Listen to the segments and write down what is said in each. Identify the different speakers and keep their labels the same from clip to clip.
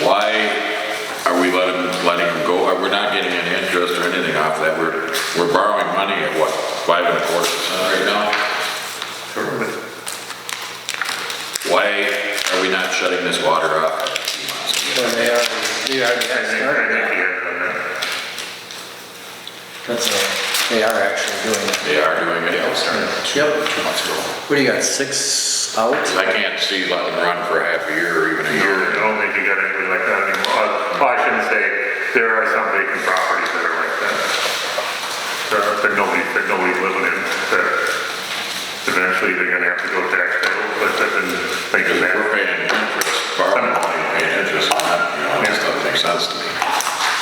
Speaker 1: Why are we letting, letting them go? We're not getting any interest or anything off that. We're, we're borrowing money at what, five and a quarter percent right now? Why are we not shutting this water off?
Speaker 2: When they already, they already had started it. That's a, they are actually doing it.
Speaker 1: They are doing it.
Speaker 2: Yep.
Speaker 1: Two months ago.
Speaker 2: What do you got, six out?
Speaker 1: I can't see letting them run for half a year or even a
Speaker 3: I
Speaker 1: year.
Speaker 3: don't think you got anybody like that anymore. Uh, Well, I shouldn't say, there are some vacant properties that are like that. There are, there nobody, there nobody living in there. Eventually, they're gonna have to go tax bill, but that didn't make
Speaker 1: Because
Speaker 3: it
Speaker 1: we're
Speaker 3: happen.
Speaker 1: paying interest, borrowing money, paying interest on that, you know, that doesn't make sense to me.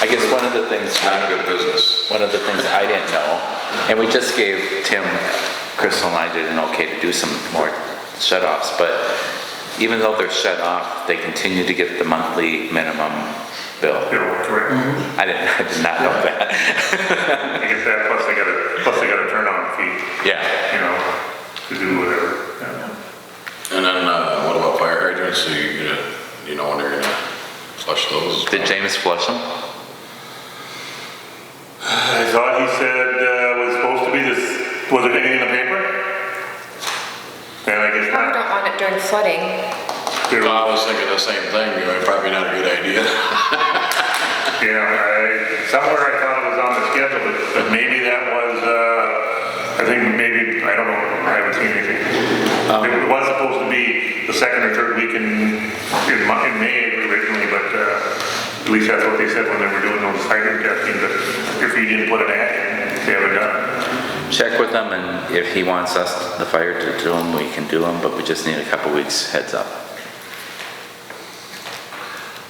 Speaker 4: I guess one of the things,
Speaker 1: It's not a good business.
Speaker 4: one of the things I didn't know, and we just gave Tim, Crystal and I did an okay to do some more shut-offs, but even though they're shut off, they continue to get the monthly minimum bill.
Speaker 3: You know, correct.
Speaker 4: I didn't, I did not know that.
Speaker 3: I guess that, plus they gotta, plus they gotta turn on feet,
Speaker 4: Yeah,
Speaker 3: you know, to do whatever. yeah.
Speaker 1: And then, uh, what about fire hydrants? So you, gonna- you know, when they're gonna flush those?
Speaker 4: did James flush them?
Speaker 3: I thought he said, uh, was supposed to be this, was it anything in the paper? And I guess not.
Speaker 5: Probably don't want it during flooding.
Speaker 3: There
Speaker 1: Well, I was thinking the same thing, you know, probably not a good idea.
Speaker 3: Yeah, I, somewhere I thought it was on the schedule, but, but maybe that was, uh, I think maybe, I don't know, I haven't seen anything.
Speaker 2: Um,
Speaker 3: It was supposed to be the second or third week in, in Mo- in May originally, but, uh, at least that's what they said when they were doing those hydrant testing, but if you didn't put an ad in, they haven't done it.
Speaker 4: Check with him, and if he wants us, the fire to do them, we can do them, but we just need a couple weeks heads up.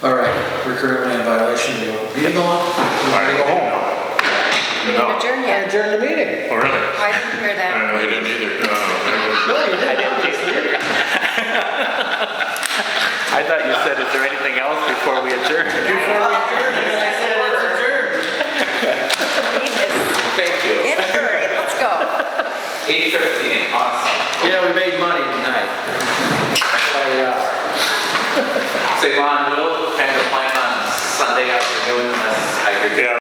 Speaker 2: All right, we're currently in violation, do you want me to go on? You want me to go home?
Speaker 5: We didn't
Speaker 2: I
Speaker 5: adjourn yet.
Speaker 2: adjourned the meeting.
Speaker 3: Oh, really?
Speaker 5: I didn't hear that.
Speaker 1: I didn't either.
Speaker 3: uh,
Speaker 2: No, you didn't.
Speaker 4: I thought you said, is there anything else before we adjourn?
Speaker 5: We need this.
Speaker 4: Thank you.
Speaker 5: In a hurry, let's go.
Speaker 4: Eight fifteen, awesome.
Speaker 2: Yeah, we made money tonight. Why, uh,
Speaker 4: Savon will kind of plan on Sunday afternoon unless I could
Speaker 3: Yeah,